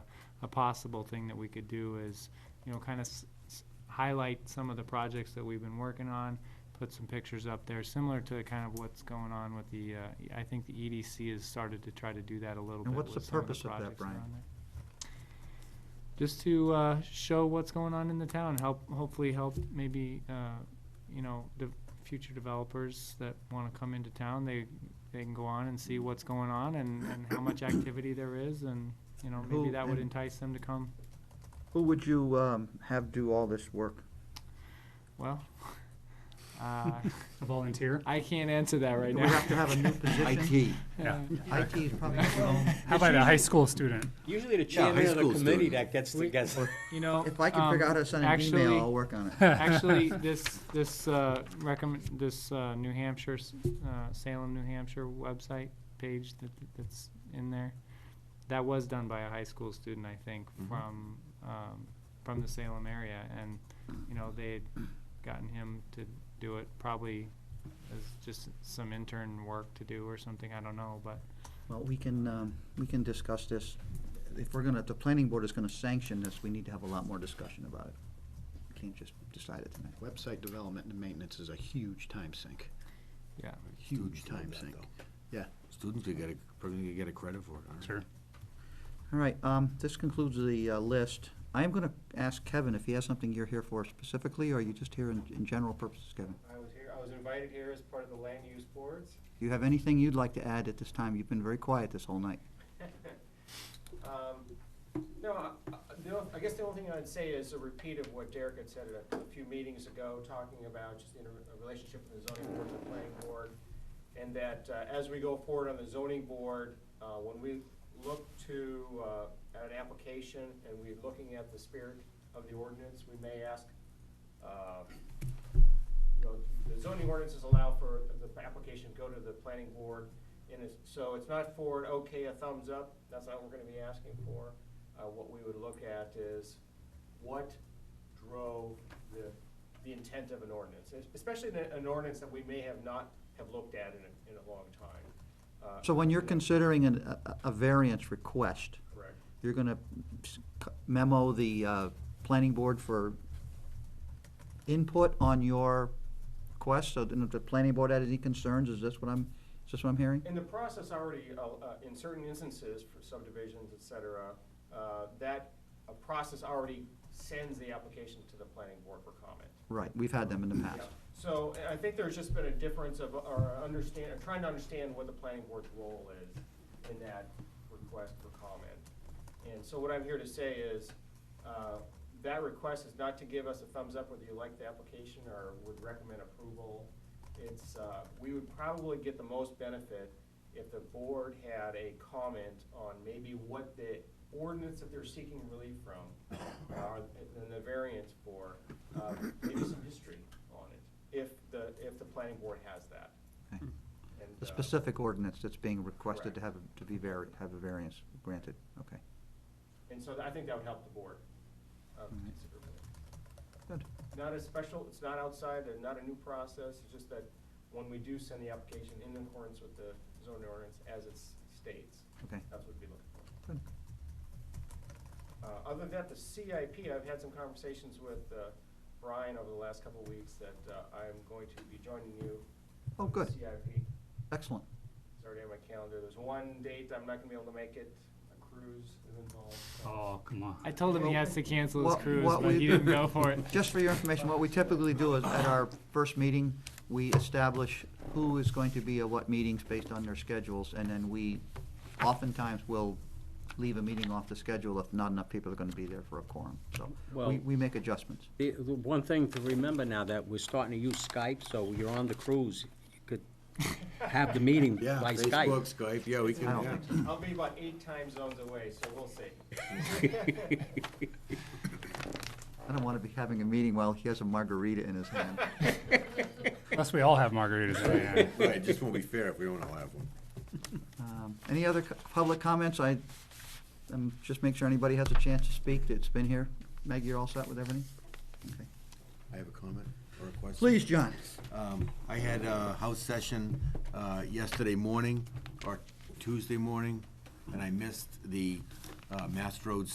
a possible thing that we could do is, you know, kind of highlight some of the projects that we've been working on, put some pictures up there, similar to kind of what's going on with the, uh, I think the EDC has started to try to do that a little bit. And what's with the some purpose of that, projects Brian? on there. Just to uh, show what's going on in the town, help, hopefully help maybe, uh, you know, the future developers that want to come into town, they, they can go on and Mm. see what's going on and, and how much activity there is and, you know, maybe Who- that would and- entice them to come. Who would you um, have do all this work? Well, uh, A volunteer? I can't answer that right Do now. we have to have a new position? IT. Yeah. IT is probably not gonna- How about a high school student? Usually the Yeah, high chairman of the school committee student. that gets, We- gets, You know. If I can figure out um, how to send an actually- email, I'll work on it. Actually, this, this, uh, recommend, this, uh, New Hampshire, s- uh, Salem, New Hampshire website page that, that's in there, that was done by a high school student, I think, Mhm. from, um, from the Salem area, and, you know, they had gotten him to do it, probably as just some intern work to do or something, I don't know, but, Well, we can, um, we can discuss this. If we're gonna, if the planning board is gonna sanction this, we need to have a lot more discussion about it. Can't just decide it tonight. Website development and maintenance is a huge time sink, yeah. huge Students love time that, sink. though. Yeah. Students could get a, probably could get a credit for it. aren't they? Sure. All right, um, this concludes the uh, list. I am gonna ask Kevin if he has something you're here for specifically, or are you just here in, in general purposes, Kevin? I was here, I was invited here as part of the land use boards, Do you have anything you'd like to add at this time? You've been very quiet this whole night. Um, No, I- I- the o- I guess the only thing I'd say is a repeat of what Derek had said at a a few meetings ago, talking about just the inter- uh, relationship with the zoning board and the planning board. And that uh, as we go forward on the zoning board, uh, when we look to, uh, at an application and we're looking at the spirit of the ordinance, we may ask, uh, you know, the zoning ordinances allow for the application to go to the planning board. And it's, so it's not for an okay, a thumbs up, that's not what we're gonna be asking for. Uh, what we would look at is what drove the, the intent of an ordinance, es- especially in a- an ordinance that we may have not have looked at in a, in a long time. Uh, So when you're you know, considering an, a- a variance request, Correct. you're gonna memo the, uh, planning board for input on your request, so then if the planning board had any concerns, is this what I'm, is this what I'm hearing? In the process already, uh, uh, in certain instances for subdivisions, et cetera, uh, that, a process already sends the application to the planning board for comment. Right, we've had them in the Yeah. past. So I- I think there's just been a difference of, or a understand, or trying to understand what the planning board's role is in that request for comment. And so what I'm here to say is, uh, that request is not to give us a thumbs up whether you like the application or would recommend approval. It's, uh, we would probably get the most benefit if the board had a comment on maybe what the ordinance that they're seeking relief from, uh, and the variance for, uh, maybe some history on it, if the, if the planning board has that. Okay. And, The uh, specific ordinance that's being requested to have, Correct. a- to be var, have a variance granted, okay, And so I think that would help the board uh, considerably. good. Not a special, it's not outside, and not a new process, it's just that when we do send the application in accordance with the zoning ordinance as it states, Okay. that's what we'd be looking for. Good. Uh, Other than that, the CIP, I've had some conversations with uh, Brian over the last couple of weeks that uh, I'm going to be joining you. Oh, on the good. CIP, Excellent. it's already on my calendar. There's one date I'm not gonna be able to make it, a cruise is involved. so- Oh, come on. I told him he has to cancel his What- cruise, what but we- he didn't go for it. Just for your information, what we typically do is, at our first meeting, we establish who is going to be at what meetings based on their schedules, and then we oftentimes will leave a meeting off the schedule if not enough people are gonna be there for a quorum, so we, Well- we make adjustments. the, the one thing to remember now that we're starting to use Skype, so you're on the cruise, you could have the meeting Yeah, by Facebook, Skype. Skype, yeah, we can, I don't yeah. think so. I'll be about eight time zones away, so we'll see. I don't wanna be having a meeting while he has a margarita in his hand. Unless we all have margaritas in hand. Right, just won't be fair if we don't allow one. Um, Any other co- public comments? I, um, just make sure anybody has a chance to speak that's been here. Meg, you're all set with everything? Okay. I have a comment or a question. Please, John. Um, I had a house session uh, yesterday morning, or Tuesday morning, and I missed the uh, Mass Road